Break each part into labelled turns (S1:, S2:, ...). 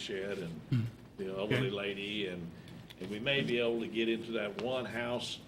S1: shed and the elderly lady, and, and we may be able to get into that one house.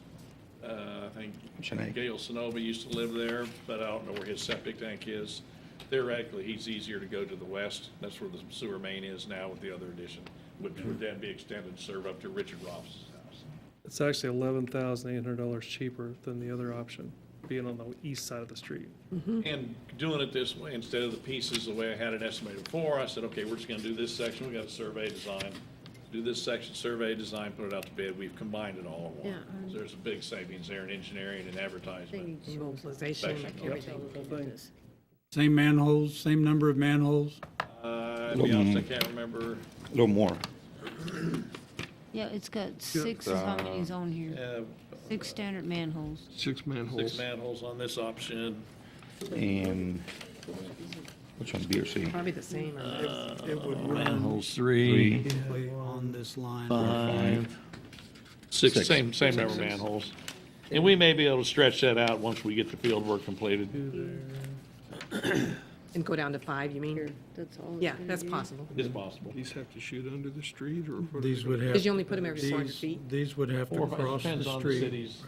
S1: Uh, I
S2: Shanae.
S1: think Gail Sonova used to live there, but I don't know where his septic tank is. Theoretically, he's easier to go to the west. That's where the sewer main is now with the other addition, which would then be extended to serve up to Richard Ross's house.
S3: It's actually eleven thousand eight hundred dollars cheaper than the other option, being on the east side of the street.
S1: And doing it this way, instead of the pieces, the way I had it estimated before, I said, okay, we're just gonna do this section, we got a survey design. Do this section, survey design, put it out to bid, we've combined it all in one.
S4: Yeah.
S1: So There's a big savings there in engineering and advertisement.
S4: Mobilization,
S1: Yep.
S4: everything.
S5: Same manholes, same number of manholes?
S1: Uh, to be honest, I can't remember,
S2: A little more.
S6: Yeah, it's got six, is how many's on here?
S1: uh,
S6: Six standard manholes.
S7: Six
S1: six
S7: manholes.
S1: manholes on this option.
S2: And which one, B or C?
S4: Probably the same. uh,
S5: It would
S7: Manholes, three,
S5: on this line.
S1: Five. Six,
S2: Six.
S1: same, same number of manholes. And we may be able to stretch that out once we get the field work completed.
S4: And go down to five, you mean?
S6: That's all. it's
S4: Yeah,
S6: gonna
S4: that's
S6: be.
S4: possible.
S1: It's possible.
S7: These have to shoot under the street or? what are
S5: These
S7: they-
S5: would have.
S4: Because you only put 'em every 400
S5: these-
S4: feet.
S5: These would have
S1: Or if
S5: to
S1: it
S5: cross the
S1: Depends on the
S5: street.
S1: city's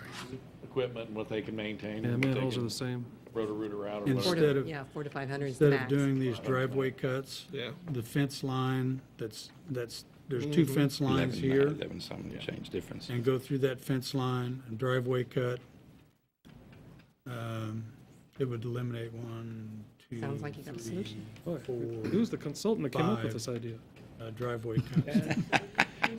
S1: equipment and what they can maintain.
S3: Yeah,
S1: and what they
S3: manholes are
S1: can
S3: the same.
S1: Roto-Rooter out or
S5: And
S1: whatever.
S4: Four
S5: Instead
S4: to,
S5: of-
S4: yeah, four to 500 is the
S5: Instead of
S4: max.
S5: doing these driveway cuts,
S7: Yeah.
S5: the fence line, that's, that's, there's two fence lines here,
S2: Eleven something change difference.
S5: and go through that fence line and driveway cut. Um, It would eliminate one, two,
S4: Sounds like you got a
S5: three,
S4: solution.
S5: four
S3: Who's the consultant that came up with
S5: Five.
S3: this idea?
S5: uh, driveway cuts.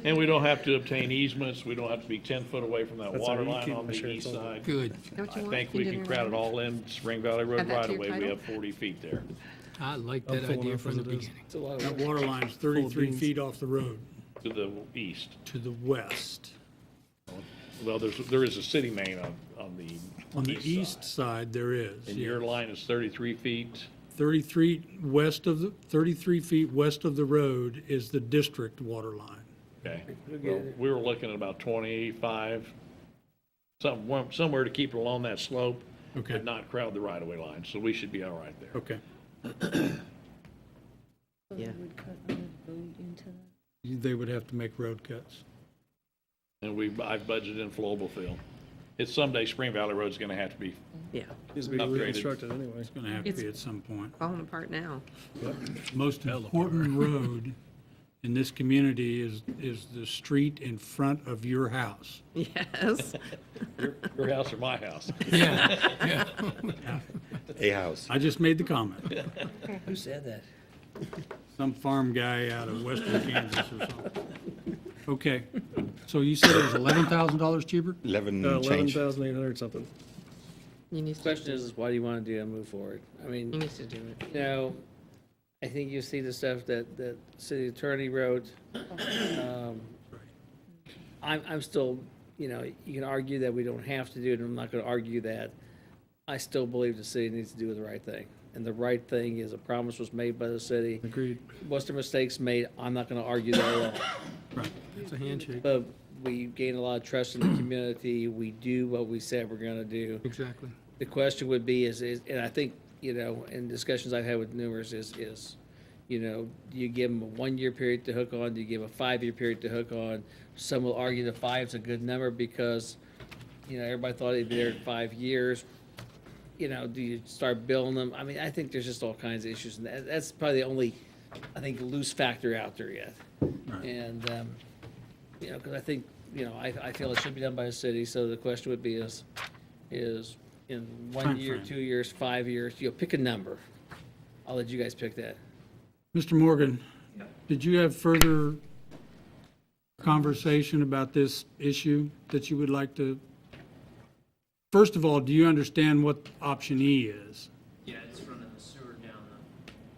S1: And we don't have to obtain easements, we don't have to be 10 foot away from that
S3: That's
S1: water
S3: how you
S1: line
S3: keep
S1: on the
S3: my shirts
S1: east
S3: on.
S1: side.
S7: Good.
S4: Don't
S1: I
S4: you want
S1: think we can
S4: Indian
S1: crowd it
S4: Railroad?
S1: all in Spring Valley Road
S4: Add that
S1: right
S4: to your
S1: away, we
S4: title?
S1: have 40 feet there.
S7: I like
S3: I'm
S7: that
S3: full
S7: idea
S3: enough
S7: from
S3: as
S7: the
S3: it is.
S7: beginning.
S5: That water line's 33
S3: beans.
S5: feet off the road
S1: To the east,
S5: to the west.
S1: well, there's, there is a city main on, on the.
S5: On the
S1: side.
S5: east side, there is.
S1: And your
S5: yeah.
S1: line is 33 feet,
S5: 33 west of, the 33 feet west of the road is the district water line.
S1: okay. Well, We were looking at about 25, some, one- somewhere to keep it along that slope.
S5: Okay.
S1: But not crowd the right of way line, so we should be all right there.
S5: Okay.
S4: Yeah.
S6: Would cut the road into that.
S5: They would have to make road cuts.
S1: And we, I've budgeted in flowable fill. It's someday Spring Valley Road's gonna have to be,
S4: Yeah,
S3: Needs to be
S1: Upgraded.
S3: reconstructed anyway.
S5: Going to have to
S4: It's- Oh.
S5: be at some point.
S4: falling apart now.
S5: Most important road in this community is, is the street in front of your house.
S4: Yes.
S1: your house or my house.
S2: A house.
S5: I just made the comment.
S8: Who said that?
S5: Some farm guy out of western Kansas or something. Okay, so you said it was $11,000 cheaper?
S2: Eleven
S3: uh, Eleven
S2: Mm-hmm. change.
S3: thousand eight hundred something.
S4: You need to,
S8: Question is, is why do you want to do that, move forward? I mean,
S4: you need to do it.
S8: you know, I think you see the stuff that, that city attorney wrote. Um, I'm, I'm still, you know, you can argue that we don't have to do it, and I'm not going to argue that. I still believe the city needs to do the right thing. And the right thing is a promise was made by the city.
S3: Agreed.
S8: Was there mistakes made? I'm not going to argue that at all.
S7: It's a handshake.
S8: But we gain a lot of trust in the community. We do what we said we're gonna do.
S7: Exactly.
S8: The question would be is, is, and I think, you know, in discussions I've had with numerous is, is, you know, do you give them a one-year period to hook on? Do you give a five-year period to hook on? Some will argue that five's a good number because, you know, everybody thought they'd be there in five years. You know, do you start billing them? I mean, I think there's just all kinds of issues, and that, that's probably the only, I think, loose factor out there yet. And, um, you know, because I think, you know, I, I feel it should be done by the city, so the question would be is, is in one year,
S5: Timeframe.
S8: two years, five years, you know, pick a number. I'll let you guys pick that.
S5: Mr. Morgan, did you have further conversation about this issue that you would like to? First of all, do you understand what option E is?
S9: Yeah, it's running the sewer down the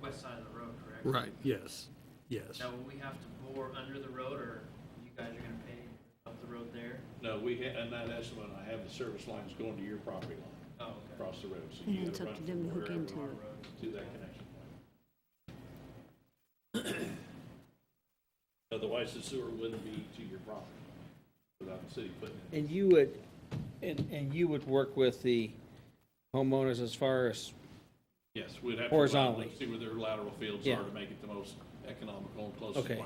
S9: west side of the road, correct?
S7: Right.
S5: Yes, yes.
S9: Now, will we have to bore under the road, or you guys are gonna pay up the road there?
S1: No, we, ha- and that estimate, I have the service lines going to your property line
S9: Oh, okay.
S1: across the road. So
S6: And
S1: you
S6: it's
S1: either
S6: up
S1: run
S6: to them to
S1: from
S6: hook
S1: wherever
S6: into
S1: our
S6: it.
S1: road To that connection point. Otherwise, the sewer wouldn't be to your property without the city putting it.
S8: And you would, and, and you would work with the homeowners as far as,
S1: Yes, we'd have to.
S8: Horizontally.
S1: See where their lateral fields
S8: Yeah.
S1: are to make it the most economical and closest.
S8: okay,
S1: one.